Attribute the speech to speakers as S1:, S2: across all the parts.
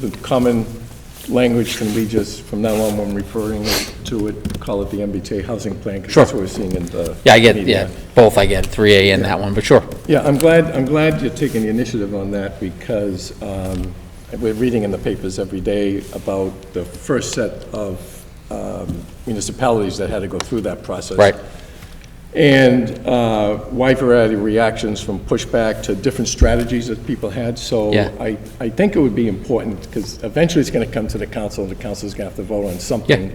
S1: The common language, can we just, from now on, when referring to it, call it the MBTA housing plan? 'cause That's
S2: Sure.
S1: what we're seeing in the.
S2: Yeah, I get,
S1: media.
S2: yeah, both, I get 3A and that one, but sure.
S1: Yeah, Uh, I'm glad, I'm glad you're taking the initiative on that because um, we're reading in the papers every day about the first set of um, municipalities that had to go through that process.
S2: Right.
S1: And uh, wide variety of reactions from pushback to different strategies that people had. So
S2: Yeah.
S1: I, I think it would be important because eventually it's going to come to the council and the council's going to have to vote on something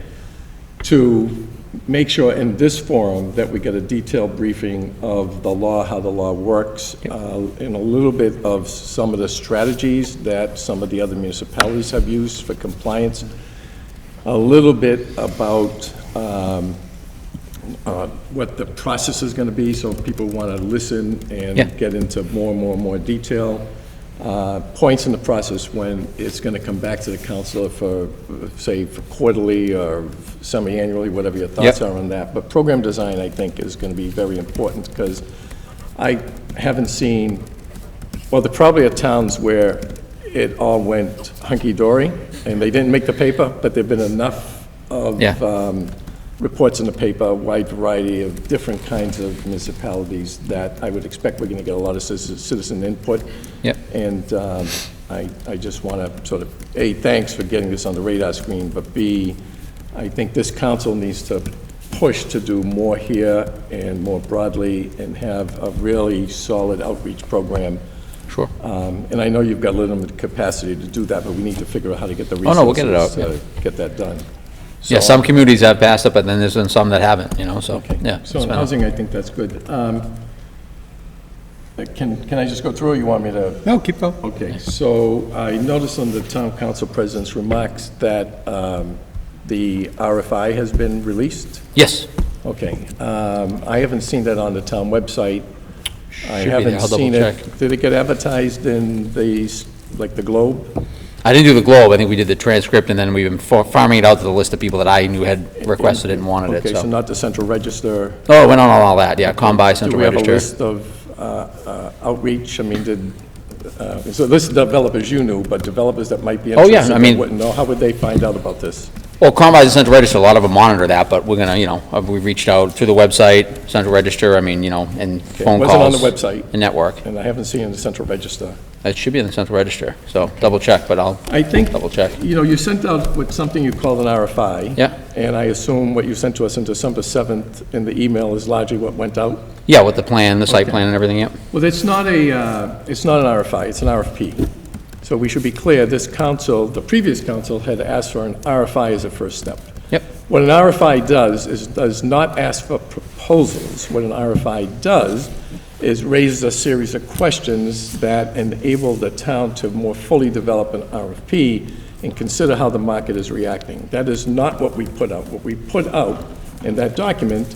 S1: to make sure in this forum that we get a detailed briefing of the law, how the law works, uh, and a little bit of some of the strategies that some of the other municipalities have used for compliance, a little bit about um, uh, what the process is going to be, so people want to listen
S2: Yeah.
S1: and get into more and more and more detail, uh, points in the process when it's going to come back to the council for, say, for quarterly or semi-annually, whatever your thoughts
S2: Yep.
S1: are on that. But program design, I think, is going to be very important, because I haven't seen, well, there probably are towns where it all went hunky-dory, and they didn't make the paper, but there've been enough of
S2: Yeah.
S1: um, reports in the paper, a wide variety of different kinds of municipalities that I would expect we're going to get a lot of citizen- citizen input.
S2: Yep.
S1: And um, I, I just want to sort of, A, thanks for getting this on the radar screen, but B, I think this council needs to push to do more here and more broadly and have a really solid outreach program.
S2: Sure.
S1: Um, And I know you've got limited capacity to do that, but we need to figure out how to get the
S2: Oh,
S1: resources.
S2: no, we'll get it out,
S1: To get that done.
S2: Yeah,
S1: So-
S2: some communities have passed it, but then there's been some that haven't, you know, so,
S1: Okay.
S2: yeah.
S1: So
S2: it's
S1: in
S2: been-
S1: housing, I think that's good. Um, Can, can I just go through, or you want me to?
S3: No, keep going.
S1: Okay, so I noticed on the town council president's remarks that um, the RFI has been released.
S2: Yes,
S1: Okay, um, I haven't seen that on the town website. I
S2: Should be there.
S1: haven't
S2: I'll double
S1: seen it.
S2: check.
S1: Did it get advertised in the, s- like, the Globe?
S2: I didn't do the Globe, I think we did the transcript, and then we've been fa- farming it out to the list of people that I knew had requested it and wanted
S1: Okay,
S2: it,
S1: so
S2: so.
S1: not the central register.
S2: Oh, it went on all that, yeah, Combi,
S1: Do
S2: Central
S1: we have a
S2: Register.
S1: list of uh, uh, outreach? I mean, did, uh, so this is developers you knew, but developers that might be
S2: Oh, yeah,
S1: interested
S2: I
S1: that
S2: mean-
S1: wouldn't know, how would they find out about this?
S2: Well, Combi's and Central Register, a lot of them monitor that, but we're gonna, you know, uh, we reached out through the website, Central Register, I mean, you know, and phone
S1: wasn't on
S2: calls.
S1: the website.
S2: And network.
S1: And I haven't seen it in the central register.
S2: It should be in the Central Register, so double check, but I'll,
S1: I think,
S2: Double check.
S1: you know, you sent out with something you called an RFI.
S2: Yeah.
S1: And I assume what you sent to us on December 7th in the email is largely what went out.
S2: yeah, with the plan, the site
S1: Okay.
S2: plan and everything, yep.
S1: Well, it's not a, uh, it's not an RFI, it's an RFP. So we should be clear, this council, the previous council had asked for an RFI as a first step.
S2: Yep.
S1: What an RFI does is, does not ask for proposals. What an RFI does is raises a series of questions that enable the town to more fully develop an RFP and consider how the market is reacting. That is not what we put out. What we put out in that document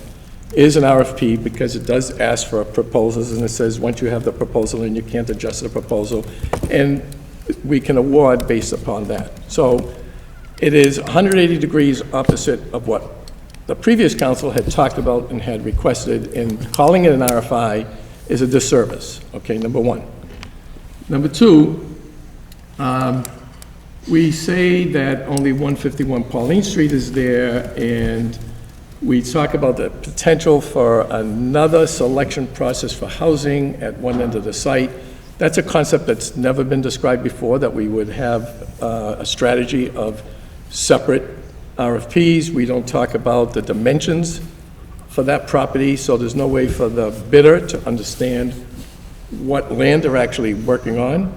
S1: is an RFP because it does ask for proposals, and it says, once you have the proposal and you can't adjust the proposal, and we can award based upon that. So it is 180 degrees opposite of what the previous council had talked about and had requested, and calling it an RFI is a disservice, okay, number one. Number two, we say that only 151 Pauline Street is there, and we talk about the potential for another selection process for housing at one end of the site. That's a concept that's never been described before, that we would have uh, a strategy of separate RFPs. We don't talk about the dimensions for that property, so there's no way for the bidder to understand what land they're actually working on,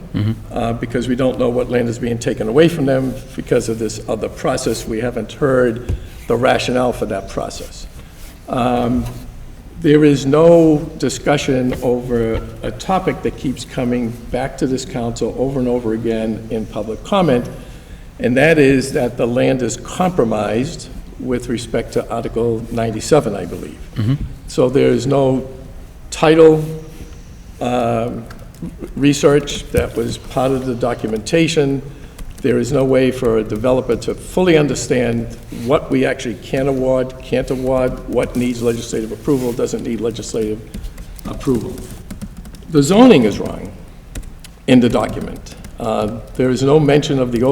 S1: uh, because we don't know what land is being taken away from them because of this other process. We haven't heard the rationale for that process. Um, There is no discussion over a topic that keeps coming back to this council over and over again in public comment, and that is that the land is compromised with respect to Article 97, I believe. So there is no title research that was part of the documentation. There is no way for a developer to fully understand what we actually can award, can't award, what needs legislative approval, doesn't need legislative approval. The zoning is wrong in the document. Uh, There is no mention of the